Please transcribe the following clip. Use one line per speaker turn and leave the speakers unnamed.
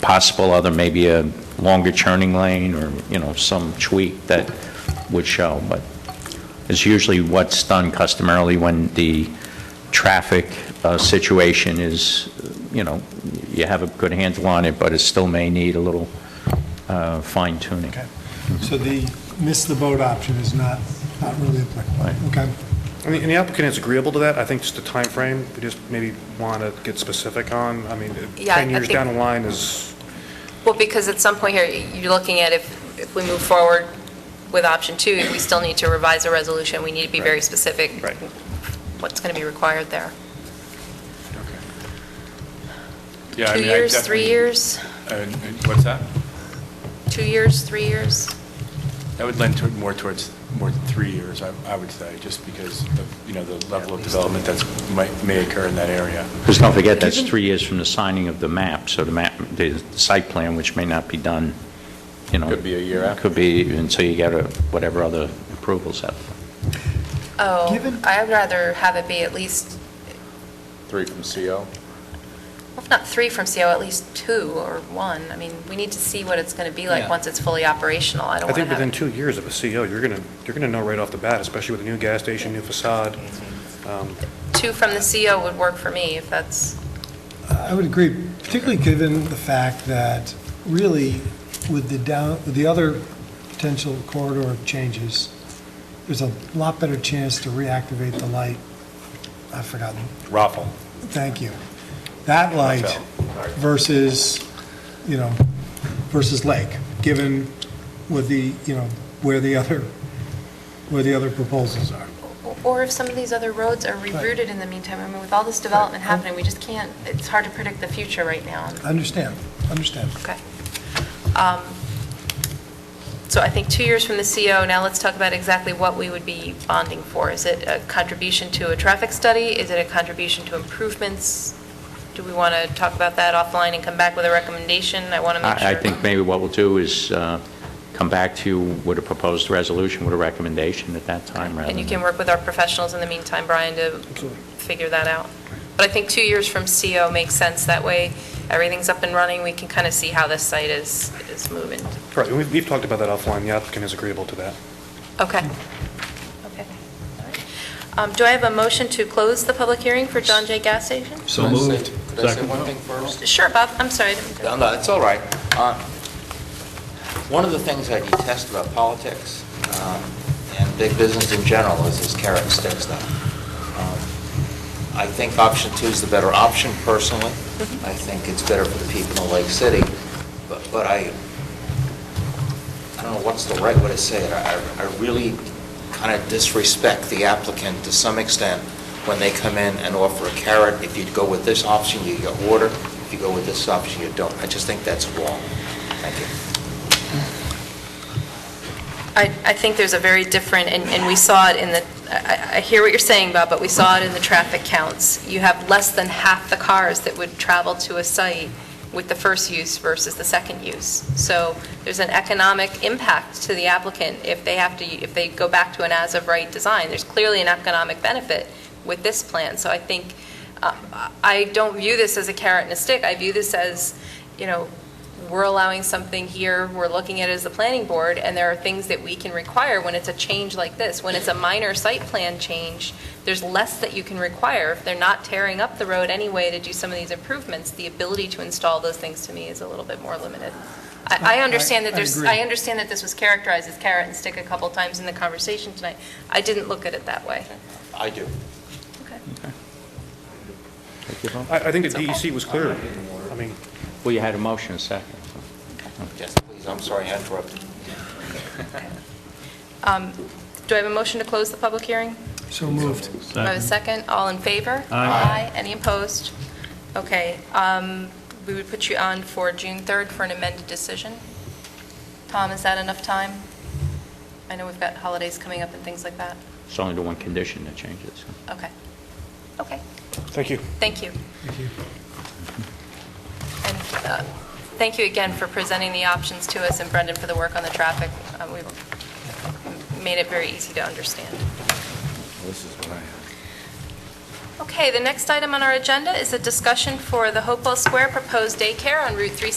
possible other, maybe a longer turning lane or, you know, some tweak that would show, but it's usually what's done customarily when the traffic uh, situation is, you know, you have a good handle on it, but it still may need a little uh, fine tuning.
Okay. So the miss the boat option is not, not really
Right.
applicable. Okay.
And the- and the applicant is agreeable to that, I think just the time frame. we just maybe want to get specific on, I mean,
Yeah, I-
10
I
years
think-
down the line is,
Well, because at some point here, you're looking at if, if we move forward with option two, we still need to revise the resolution, we need to be very specific.
Right.
What's going to be required there?
Yeah, I
Two
mean, I
years, three
definitely-
years,
Uh, uh, What's that?
two years, three years?
That would lend toward, more towards, more than three years, I I would say, just because of, you know, the level of development that's, might, may occur in that area.
Because don't forget, that's three years from the signing of the map, so the map, the site plan, which may not be done, you know.
Could be a year after.
Could be until you get a- whatever other approvals happen.
Oh,
Given-
I'd rather have it be at least,
Three from
well,
CO?
if not three from CO, at least two or one. I mean, we need to see what it's going to be like
Yeah.
once it's fully operational. I don't
I
want to
think
have.
within two years of a CO, you're going to, you're going to know right off the bat, especially with a new gas station, new facade. Um,
Two from the CO would work for me, if that's,
I would agree, particularly given the fact that really with the down, with the other potential corridor changes, there's a lot better chance to reactivate the light. I've forgotten.
Raffle.
Thank you. That light versus, you know, versus Lake, given with the, you know, where the other, where the other proposals are.
or if some of these other roads are rerouted in the meantime. I mean, with all this development
Right.
happening, we just can't, it's hard to predict the future right now.
Understand, understand.
Okay. Um, So I think two years from the CO, now let's talk about exactly what we would be bonding for. Is it a contribution to a traffic study? Is it a contribution to improvements? Do we want to talk about that offline and come back with a recommendation? I want to make sure.
I I think maybe what we'll do is uh, come back to you with a proposed resolution, with a recommendation at that time, rather
And you
than-
can work with our professionals in the meantime, Brian, to figure that out. But I think two years from CO makes sense. That way, everything's up and running. We can kind of see how this site is, is moving.
Correct, and we've, we've talked about that offline, the applicant is agreeable to that.
Okay. Okay. All right. Um, Do I have a motion to close the public hearing for John Jay Gas Station?
So moved. Could I say one thing first?
Sure, Bob, I'm sorry. I didn't-
No, no, it's all right. Uh, One of the things I detest about politics um, and big business in general is this carrot and stick stuff. Um, I think option two is the better option personally. I think it's better for the people in Lake City, but but I, I don't know what's the right way to say it. I I really kind of disrespect the applicant to some extent when they come in and offer a carrot. If you go with this option, you get water. If you go with this option, you don't. I just think that's wrong. Thank you.
I, I think there's a very different, and, and we saw it in the, I, I hear what you're saying, Bob, but we saw it in the traffic counts. You have less than half the cars that would travel to a site with the first use versus the second use. So there's an economic impact to the applicant if they have to, if they go back to an as-of-right design. There's clearly an economic benefit with this plan. So I think, uh, I don't view this as a carrot and a stick. I view this as, you know, we're allowing something here, we're looking at it as the planning board, and there are things that we can require when it's a change like this. When it's a minor site plan change, there's less that you can require. If they're not tearing up the road anyway to do some of these improvements, the ability to install those things to me is a little bit more limited. I, I understand that
I- I
there's,
agree.
I understand that this was characterized as carrot and stick a couple times in the conversation tonight. I didn't look at it that way.
I do.
Okay.
I, I think the DEC was clear. I mean,
Well, you had a motion, a second.
Yes, please, I'm sorry I interrupted.
Um, Do I have a motion to close the public hearing?
So moved.
Do I have a second? All in favor? Aye. Any opposed? Okay, um, we would put you on for June 3rd for an amended decision. Tom, is that enough time? I know we've got holidays coming up and things like that.
It's only the one condition that changes.
Okay. Okay,
thank you.
thank you.
Thank you.
And uh, thank you again for presenting the options to us, and Brendan for the work on the traffic. Uh, We made it very easy to understand.
This is what I have.
Okay, the next item on our agenda is a discussion for the Hopewell Square proposed daycare on Route 3